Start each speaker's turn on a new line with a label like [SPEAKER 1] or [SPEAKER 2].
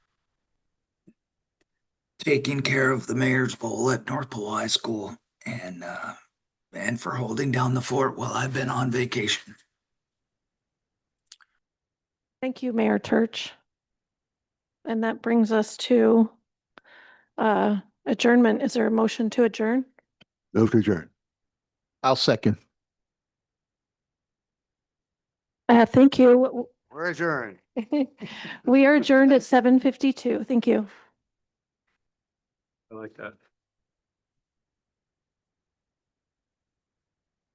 [SPEAKER 1] taking care of the mayor's bowl at North Pole High School and, uh, and for holding down the fort while I've been on vacation.
[SPEAKER 2] Thank you, Mayor Church. And that brings us to uh, adjournment. Is there a motion to adjourn?
[SPEAKER 3] Move to adjourn.
[SPEAKER 4] I'll second.
[SPEAKER 2] Uh, Thank you.
[SPEAKER 3] We're adjourned.
[SPEAKER 2] We are adjourned at 7:52. Thank you.
[SPEAKER 5] I like that.